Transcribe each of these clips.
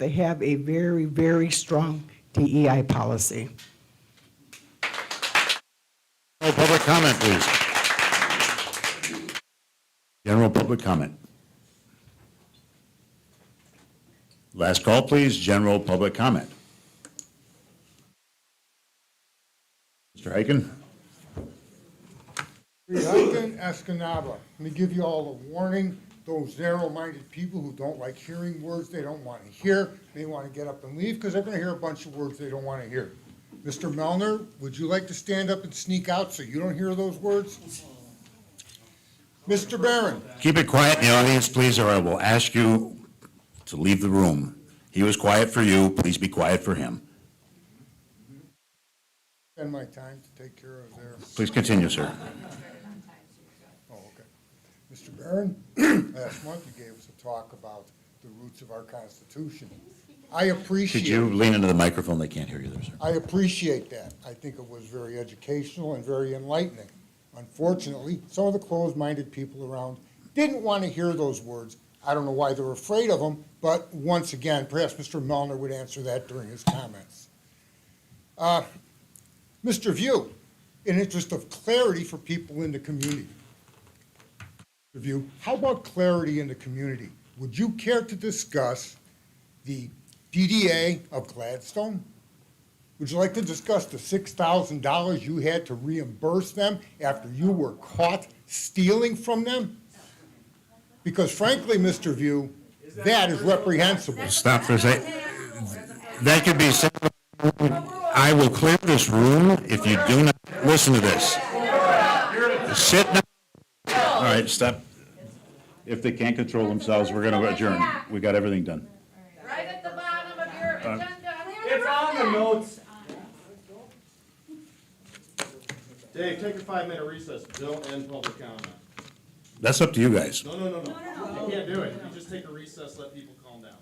They have a very, very strong DEI policy. General public comment, please. General public comment. Last call, please, general public comment. Mr. Hyken? Reluctant Escanaba. Let me give you all a warning, those narrow-minded people who don't like hearing words they don't want to hear, they want to get up and leave because they're going to hear a bunch of words they don't want to hear. Mr. Melner, would you like to stand up and sneak out so you don't hear those words? Mr. Barron, Keep it quiet in the audience, please, or I will ask you to leave the room. He was quiet for you, please be quiet for him. spend my time to take care of their, Please continue, sir. oh, okay. Mr. Barron, last month you gave us a talk about the roots of our Constitution. I appreciate. Could you lean into the microphone? They can't hear you there, sir. I appreciate that. I think it was very educational and very enlightening. Unfortunately, some of the closed-minded people around didn't want to hear those words. I don't know why they're afraid of them, but once again, perhaps Mr. Melner would answer that during his comments. Uh, Mr. View, in interest of clarity for people in the community. Mr. View, how about clarity in the community? Would you care to discuss the DDA of Gladstone? Would you like to discuss the six thousand dollars you had to reimburse them after you were caught stealing from them? Because frankly, Mr. View, that is reprehensible. Stop for a sec. That could be said. I will clear this room if you do not listen to this. Sit down. All right, stop. If they can't control themselves, we're going to adjourn. We got everything done. Right at the bottom of your agenda. It's on the notes. Dave, take a five-minute recess, don't end public comment. Oh, That's up to you guys. No, no, no, no, you can't do it, you just take a recess, let people calm down.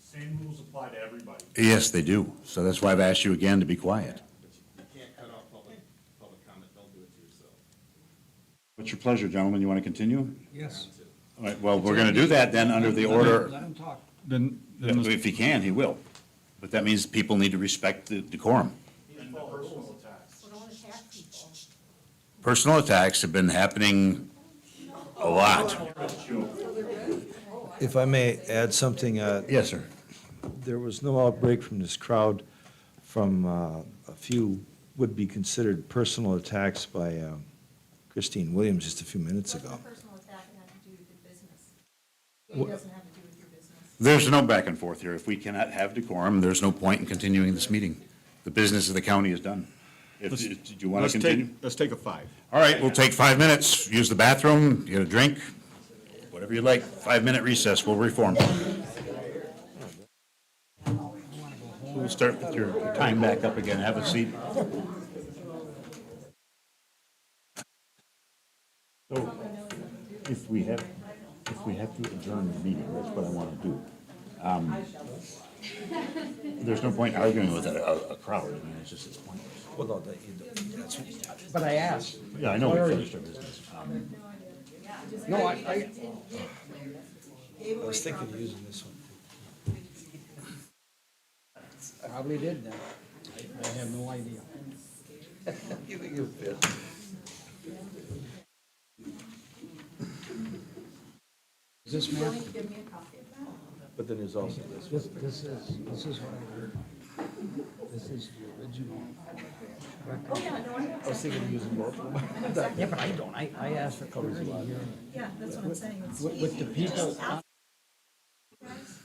Same rules apply to everybody. Yes, they do. So that's why I've asked you again to be quiet. But you you can't cut off public, public comment, don't do it to yourself. What's your pleasure, gentlemen? You want to continue? Yes. All right, well, we're going to do that then under the order. Let him talk. Then, then let's- If he can, he will. But that means people need to respect the decorum. And the personal attacks. personal attacks have been happening a lot. If I may add something, uh, Yes, sir. there was no outbreak from this crowd from uh, a few would be considered personal attacks by um, Christine Williams just a few minutes ago. What's a personal attack and have to do with your business? It doesn't have to do with your business. There's no back and forth here. If we cannot have decorum, there's no point in continuing this meeting. The business of the county is done. If, Let's- if- do you want let's to take, continue? let's take a five. All right, we'll take five minutes, use the bathroom, get a drink, whatever you like. Five-minute recess, we'll reform. We'll start with your time back up again. Have a seat. So, if we have, if we have to adjourn the meeting, that's what I want to do. Um, There's no point arguing with a, a a crowd, I mean, it's just, it's pointless. Well, no, that- you don't- that's- But I asked, Yeah, I know we finished our business. no, I, I, I was thinking of using this one. probably did that. I have no idea. Is this You only give me a copy of that? But then there's also this. This, this is, this is what I heard. This is the original. Oh, yeah, no, I have. I was thinking of using both. Yeah, but I don't, I, I asked for clarity here. Yeah, that's what I'm saying. It's With, with the people,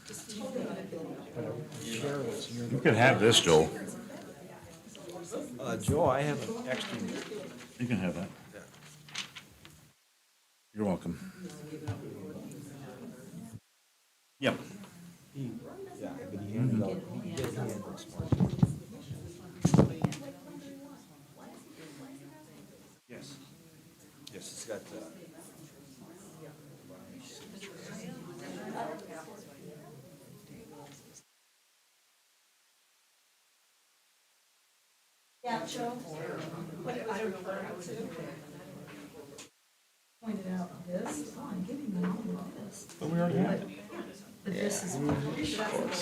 just totally unavailable. You can have this, Joel. Uh, Joe, I have an extra. You can have that. You're welcome. Yep. Yes. Yes, it's got, uh, Yeah, Joe. But I don't know where I was. Pointed out this, oh, I'm giving them all of this. But we already have it. But this is.